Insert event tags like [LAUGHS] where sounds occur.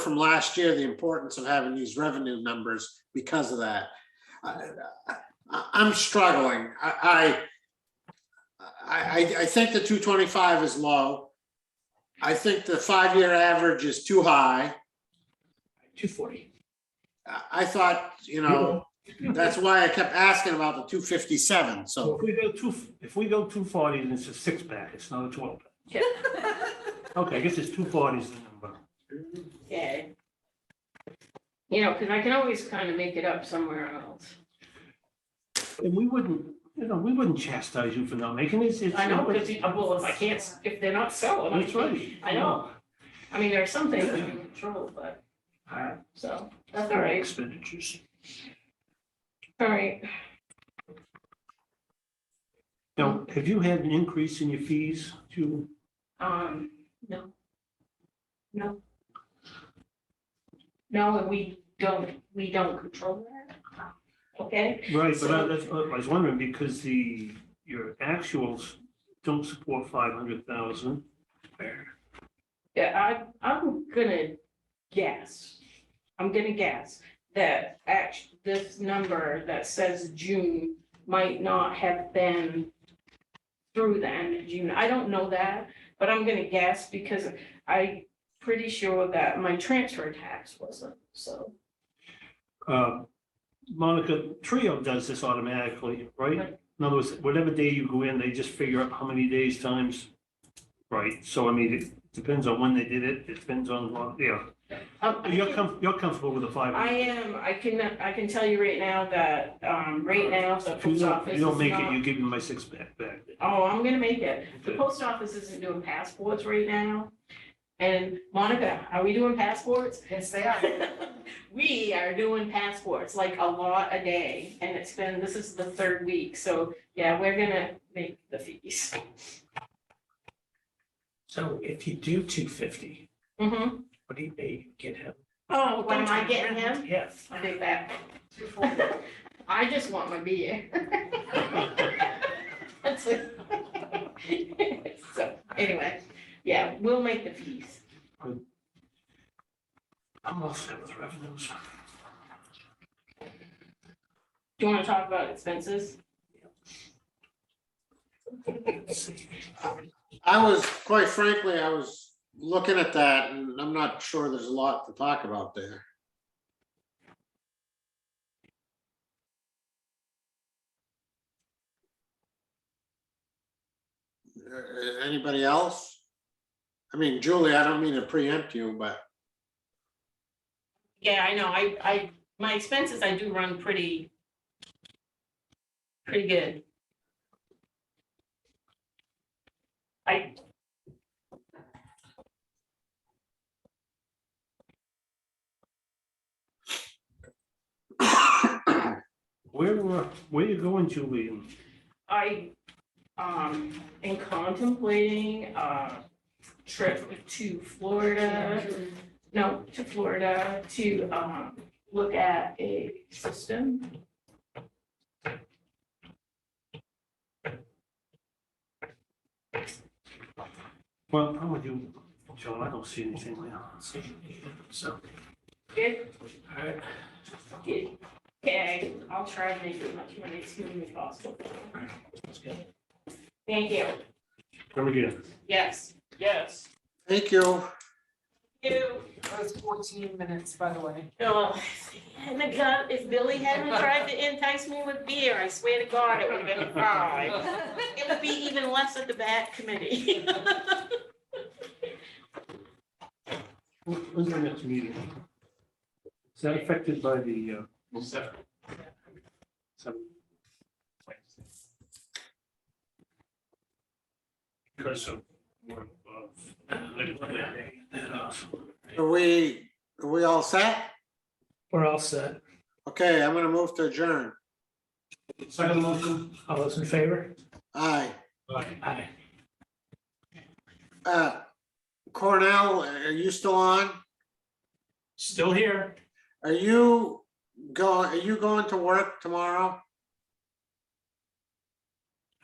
from last year, the importance of having these revenue numbers because of that. I, I- I'm struggling. I, I, I, I think the two twenty-five is low. I think the five-year average is too high. Two forty. I- I thought, you know, that's why I kept asking about the two fifty-seven, so. So if we go two, if we go two forty, then it's a six pack, it's not a twelve. pack. Okay, I guess it's two forties the number. Okay. You know, because I can always kind of make it up somewhere else. And we wouldn't, you know, we wouldn't chastise you for not making it. It's- I know, because, uh, well, if I can't, s- if they're not selling. I That's right. I know. I mean, there are some things I can control, but, All so, that's all right, Expenditures. all right. Now, have you had an increase in your fees to, Um, no. No. No, and we don't, we don't control that. Okay, right, but I, that's, what I was wondering, because the, your actuals don't support five hundred thousand. yeah, I, I'm gonna guess, I'm gonna guess that act, this number that says June might not have been through the end of June. I don't know that, but I'm gonna guess because I pretty sure that my transfer tax wasn't, so. uh, Monica, Trio does this automatically, right? Right. In other words, whatever day you go in, they just figure out how many days times, right? So I mean, it depends on when they did it, it depends on, what- yeah. um, I You're think- com, you're comfortable with the five? I am, I can, I can tell you right now that, um, right now, the If you post don't, office if is you don't make it, not- you give me my six back, back. Oh, I'm gonna make it. The Okay. post office isn't doing passports right now. And Monica, are we doing passports? [LAUGHS] Yes, they are. [LAUGHS] We are doing passports, like a lot a day, and it's been, this is the third week, so, yeah, we're gonna make the fees. So if you do two fifty, Mm-hmm. what do you pay? Get him? Oh, what am I getting him? Yes. [LAUGHS] I'll take that. [LAUGHS] I just want my beer. That's it. [LAUGHS] So, anyway, yeah, we'll make the fees. I'm all set with revenues. Do you wanna talk about expenses? I was, quite frankly, I was looking at that and I'm not sure there's a lot to talk about there. Uh, Anybody else? I mean, Julie, I don't mean to preempt you, but [COUGHS] Yeah, I know, I, I, my expenses, I do run pretty, pretty good. I. Where, were- where you going, Julie? I, um, am contemplating a trip to Florida, no, to Florida to, um, look at a system. Well, how would you, John, I don't see anything there. So, Good, all right, good. Okay, I'll try and make as much money as humanly possible. that's good. Thank you. Come again. Yes, yes. thank you. You, That was fourteen minutes, by the way. oh, and the God, if Billy hadn't tried to entice me with beer, I swear to God, it would have been five. It would be even less at the back committee. [LAUGHS] When's our next meeting? Is that affected by the, uh? Seven. Because of. more of, uh, Are we, are we all set? We're all set. Okay, I'm gonna move to adjourn. Second motion. All those in favor? Aye. Aye. Uh, Cornell, are you still on? Still here. Are you going, are you going to work tomorrow?